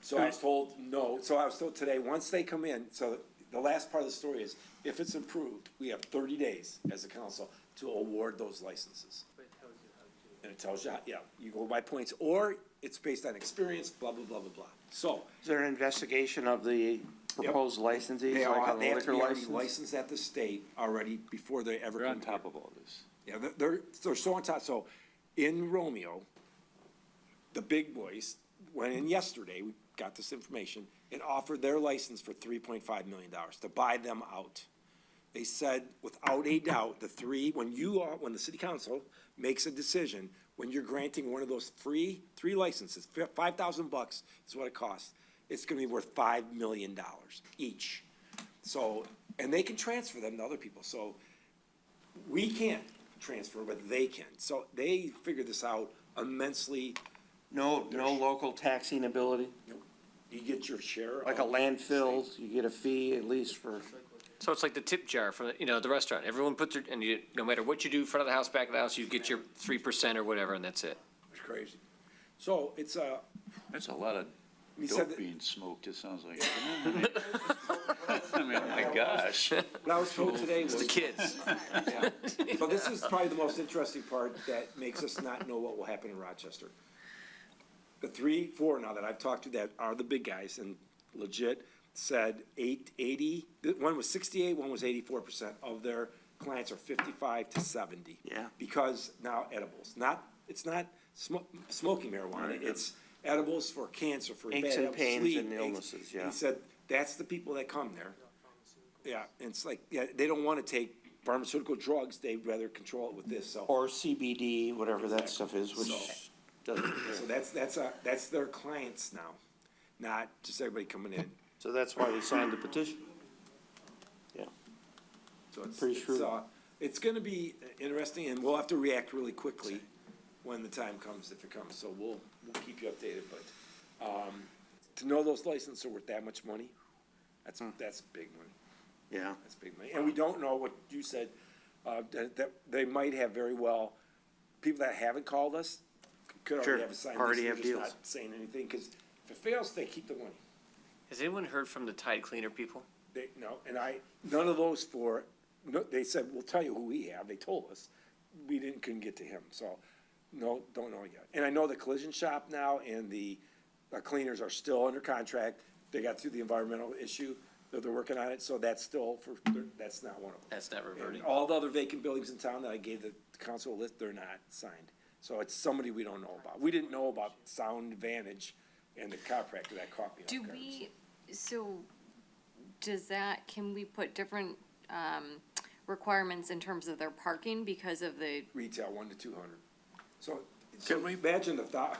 So I was told, no, so I was told today, once they come in, so the last part of the story is, if it's improved, we have thirty days as a council to award those licenses. And it tells you, how- yeah, you go by points, or it's based on experience, blah, blah, blah, blah, blah. So, Is there an investigation of the proposed licensees, they all, like on have- they the have to liquor be already license? licensed at the state already before they ever We're come on here. top of all this. Yeah, they're- they're, they're so on top. So in Romeo, the big boys went in yesterday, we got this information, and offered their license for three point five million dollars to buy them out. They said, without a doubt, the three, when you are, when the city council makes a decision, when you're granting one of those free, three licenses, five thousand bucks is what it costs, it's gonna be worth five million dollars each. So, and they can transfer them to other people, so we can't transfer, but they can. So they figured this out immensely. No, no local taxing ability, You get your share. like a of- landfill, you get a fee at least for, So it's like the tip jar for, the- you know, the restaurant. Everyone puts their, and you, no matter what you do, front of the house, back of the house, you get your three percent or whatever, and that's it. It's crazy. So it's a, That's a lot of He said dope that- being smoked, it sounds like. I mean, my gosh. what I was told today was. The kids. So this is probably the most interesting part that makes us not know what will happen in Rochester. The three, four now that I've talked to that are the big guys and legit said eight, eighty, th- one was sixty-eight, one was eighty-four percent of their clients are fifty-five to seventy. Yeah. Because now edibles, not, it's not smo- smoking marijuana, it's edibles for cancer, for Aches bad and health, pains sleep, and aches. illnesses, And yeah. He said, that's the people that come there. Yeah, and it's like, yeah, they don't wanna take pharmaceutical drugs, they'd rather control it with this, so. or CBD, whatever that stuff is, So- which doesn't. So that's, that's, uh, that's their clients now, not just everybody coming in, So that's why we signed the petition. Yeah. so it's, Pretty it's, shrewd. uh, it's gonna be interesting, and we'll have to react really quickly when the time comes, if it comes, so we'll, we'll keep you updated, but, um, to know those licenses are worth that much money, that's, Hmm. that's big money. Yeah. That's big money. And we don't know what you said, uh, that, that they might have very well, people that haven't called us could Sure, already have a signed list. already We're have just deals. not Saying anything, because if it fails, they keep the money. Has anyone heard from the Tide Cleaner people? They, no, and I, none of those four, no, they said, we'll tell you who we have. They told us. We didn't, couldn't get to him, so, no, don't know yet. And I know the collision shop now and the uh, cleaners are still under contract. They got through the environmental issue, that they're working on it, so that's still for, that's not one of them. That's not reverting. And all the other vacant buildings in town that I gave the council a list, they're not signed. So it's somebody we don't know about. We didn't know about Sound Vantage and the chiropractor that caught me off Do guard. we, so, does that, can we put different, um, requirements in terms of their parking because of the, Retail, one to two hundred. So, so imagine the thou,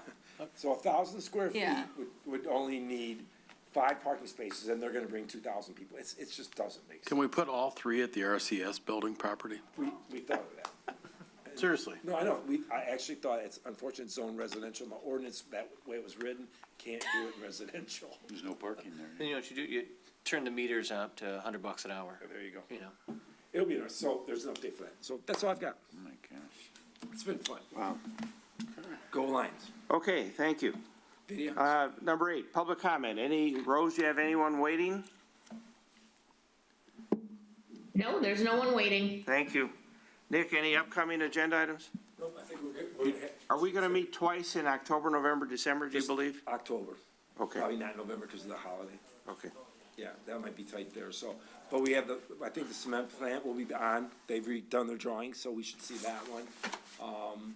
so a thousand square feet Yeah. would, would only need five parking spaces and they're gonna bring two thousand people. It's, it just doesn't make Can sense. we put all three at the RCS building property? We, we thought of that. Seriously? No, I know, we, I actually thought it's unfortunate zone residential, the ordinance, that way it was written, can't do it residential. There's no parking there. oh Then you know what you do? You turn the meters up to a hundred bucks an hour, There you go. you know? It'll be nice. So there's an update for that. So that's all I've got. Oh, my gosh. It's been fun. Wow. Go Lions. Okay, thank you. Video. Uh, number eight, public comment. Any, Rose, you have anyone waiting? No, there's no one waiting. Thank you. Nick, any upcoming agenda items? Nope, I think we're good. We're gonna have- Are we gonna meet twice in October, November, December, do you believe? October. Probably Okay, not November because of the holiday. okay. Yeah, that might be tight there. So, but we have the, I think the cement plant will be on. They've redone their drawings, so we should see that one. Um,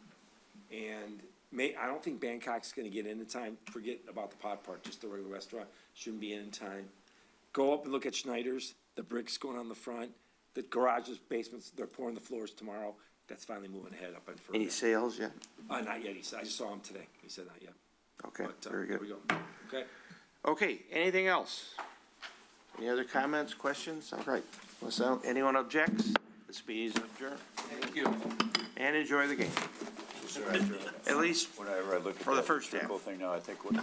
and may, I don't think Bangkok's gonna get in in time. Forget about the pot part, just the regular restaurant. Shouldn't be in in time. Go up and look at Schneider's, the bricks going on the front, the garages, basements, they're pouring the floors tomorrow. That's finally moving ahead up in Any Fergus. sales yet? Uh, not yet. He said, I just saw him today. He said not yet. Okay, But, uh, very there good. we go. Okay. Okay, anything else? Any other comments, questions? All right, unless uh, anyone objects, this meeting is adjourned. Thank you. And enjoy the game, at least Whenever I look at. For the that first half. circle Thing now, I think, what,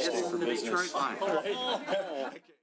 it's the Detroit Lions.